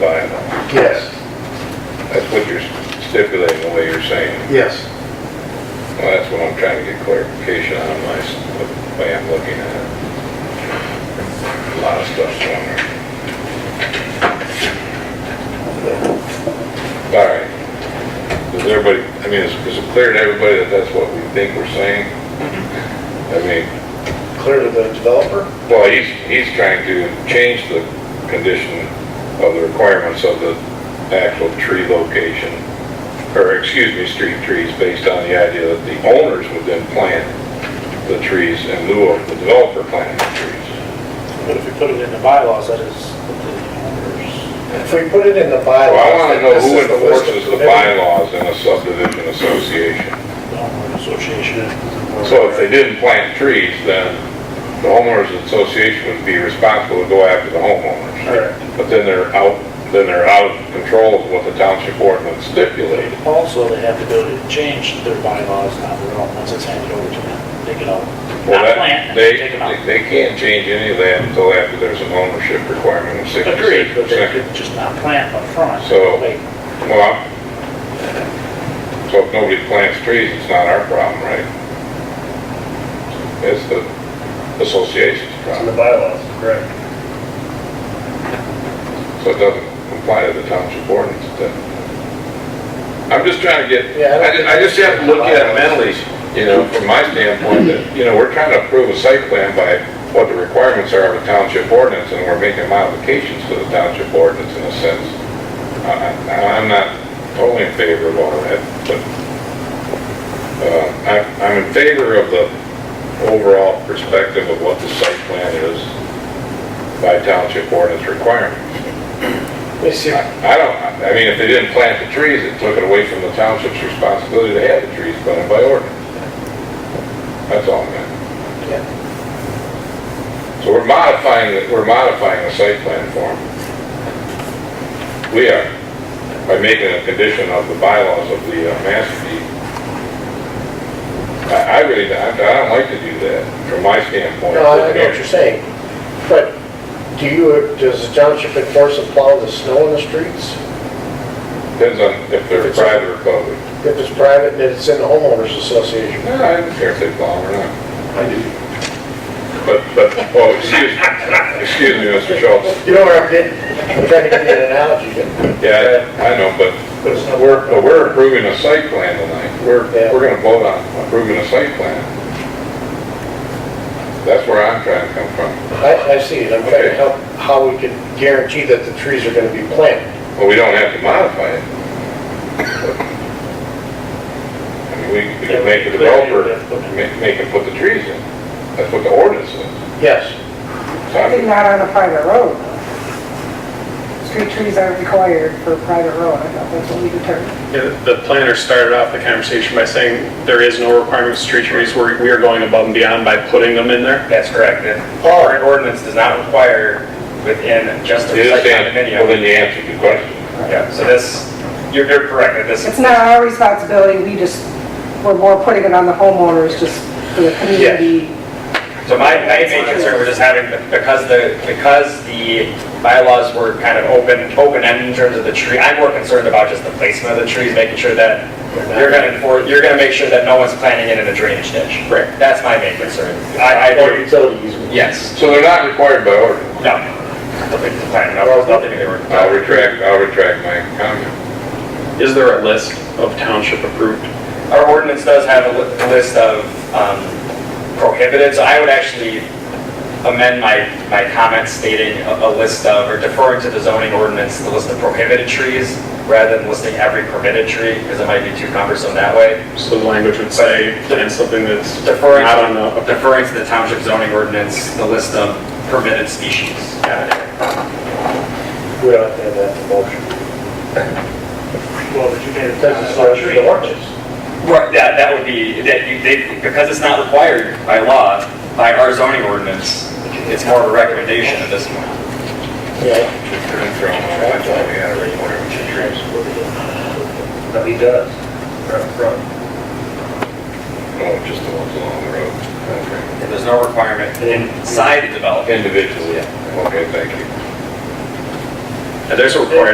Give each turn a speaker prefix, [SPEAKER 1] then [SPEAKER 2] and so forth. [SPEAKER 1] by law.
[SPEAKER 2] Yes,
[SPEAKER 1] That's what you're stipulating, the way you're saying.
[SPEAKER 2] yes,
[SPEAKER 1] Well, that's what I'm trying to get clarification on my, s- the way I'm looking at it. A lot of stuff's on there. All right. Does everybody, I mean, is, is it clear to everybody that that's what we think we're saying? I mean,
[SPEAKER 2] clearly the developer.
[SPEAKER 1] well, he's, he's trying to change the condition of the requirements of the actual tree location, or excuse me, street trees, based on the idea that the owners would then plant the trees in lieu of the developer planting the trees.
[SPEAKER 3] But if you put it in the bylaws, that is the
[SPEAKER 2] If we put it in the
[SPEAKER 1] So
[SPEAKER 2] bylaws.
[SPEAKER 1] I want to know
[SPEAKER 2] that this
[SPEAKER 1] who
[SPEAKER 2] is the list of
[SPEAKER 1] enforces the
[SPEAKER 2] permitted-
[SPEAKER 1] bylaws in a subdivision association.
[SPEAKER 3] owners, the homeowner association.
[SPEAKER 1] So if they didn't plant trees, then the homeowners association would be responsible to go after the homeowners.
[SPEAKER 2] Correct.
[SPEAKER 1] But then they're out, then they're out of control of what the township ordinance stipulated.
[SPEAKER 3] Also, they have the ability to change their bylaws now, their own, once it's handed over to them, they can all,
[SPEAKER 1] Well,
[SPEAKER 3] not
[SPEAKER 1] that-
[SPEAKER 3] plant,
[SPEAKER 1] they-
[SPEAKER 3] they take them out.
[SPEAKER 1] They can't change any of that until after there's an ownership requirement of
[SPEAKER 3] Agreed,
[SPEAKER 1] sixty-six
[SPEAKER 3] but they
[SPEAKER 1] percent.
[SPEAKER 3] could just not plant up front.
[SPEAKER 1] So-
[SPEAKER 3] They-
[SPEAKER 1] Well, I'm- so if nobody plants trees, it's not our problem, right? It's the association's
[SPEAKER 2] It's in the
[SPEAKER 1] problem,
[SPEAKER 2] bylaws, correct.
[SPEAKER 1] so it doesn't comply to the township ordinance then. I'm just trying to get,
[SPEAKER 2] Yeah, I don't
[SPEAKER 1] I ju- I
[SPEAKER 2] think
[SPEAKER 1] just have to look at it
[SPEAKER 2] it's-
[SPEAKER 1] mentally, you know, from my standpoint, that, you know, we're trying to approve a site plan by what the requirements are of a township ordinance, and we're making modifications to the township ordinance in a sense. I- I- I'm not totally in favor of all that, but uh, I- I'm in favor of the overall perspective of what the site plan is by township ordinance requirements.
[SPEAKER 2] Let me see,
[SPEAKER 1] I I don't, I mean, if they didn't plant the trees, it took it away from the township's responsibility to have the trees planted by ordinance. That's all, man.
[SPEAKER 2] yeah,
[SPEAKER 1] So we're modifying, the- we're modifying the site plan form. We are, by making a condition of the bylaws of the uh, master deed. I, I really, I I don't like to do that, from my standpoint.
[SPEAKER 2] no, I I know what you're saying, but do you, does the township enforce and plow the snow in the streets?
[SPEAKER 1] Depends on if they're private or public.
[SPEAKER 2] If it's private and it's in the homeowners association?
[SPEAKER 1] No, I don't care if they plow or not.
[SPEAKER 2] I do.
[SPEAKER 1] But, but, oh, excuse, excuse me, Mr. Schultz.
[SPEAKER 2] You know where I'm getting, I'm trying to give you an analogy.
[SPEAKER 1] Yeah, I I know, but
[SPEAKER 2] but it's not-
[SPEAKER 1] we're, but we're approving a site plan tonight. We're,
[SPEAKER 2] Yeah.
[SPEAKER 1] we're gonna vote on approving a site plan. That's where I'm trying to come from.
[SPEAKER 2] I, I see it, I'm trying to help how we can guarantee that the trees are gonna be planted.
[SPEAKER 1] Well, we don't have to modify it. I mean, we, we can make the developer, make, make him put the trees in. That's what the ordinance is.
[SPEAKER 2] Yes.
[SPEAKER 1] So
[SPEAKER 4] I think
[SPEAKER 1] I'm-
[SPEAKER 4] not on a private road. Street trees aren't required for a private road, I thought that's what we determined.
[SPEAKER 5] Yeah, The planner started off the conversation by saying there is no requirement for street trees. We're- We are going above and beyond by putting them in there.
[SPEAKER 6] That's correct. The current ordinance does not require within just a
[SPEAKER 1] It is
[SPEAKER 6] site
[SPEAKER 1] saying, well,
[SPEAKER 6] condominium.
[SPEAKER 1] then you answered the question.
[SPEAKER 6] Yeah, so this, you're, you're correct, that this,
[SPEAKER 4] It's not our responsibility, we just, we're more putting it on the homeowners, just for the community.
[SPEAKER 6] so my, my main concern was just having, because the, because the bylaws were kind of open, open-ended in terms of the tree, I'm more concerned about just the placement of the trees, making sure that you're gonna, enfor- you're gonna make sure that no one's planting it in a drainage ditch.
[SPEAKER 5] Right.
[SPEAKER 6] That's my main concern. I, I,
[SPEAKER 2] utility easement.
[SPEAKER 6] yes,
[SPEAKER 1] So they're not required by ordinance.
[SPEAKER 6] no. Nothing to plan, no, nothing to worry
[SPEAKER 1] I'll
[SPEAKER 6] about.
[SPEAKER 1] retract, I'll retract my comment.
[SPEAKER 5] Is there a list of township approved?
[SPEAKER 6] Our ordinance does have a li- list of um, prohibited, so I would actually amend my, my comment stating a a list of, or deferring to the zoning ordinance, the list of prohibited trees, rather than listing every permitted tree, because it might be too cumbersome that way.
[SPEAKER 5] So the language would say, plant something that's
[SPEAKER 6] Deferring,
[SPEAKER 5] not on the,
[SPEAKER 6] deferring to the township zoning ordinance, the list of permitted species. Got it.
[SPEAKER 2] We don't have to have that in the motion.
[SPEAKER 3] Well, but you made it.
[SPEAKER 2] Because it's not the ordinance.
[SPEAKER 6] Right, that, that would be, that you, they, because it's not required by law, by our zoning ordinance, it's more of a recommendation at this point.
[SPEAKER 2] Yeah. No, he does. Right front.
[SPEAKER 1] Oh, just the ones along the road. Okay.
[SPEAKER 6] And there's no requirement inside the development.
[SPEAKER 1] Individually. Okay, thank you.
[SPEAKER 5] there's a requirement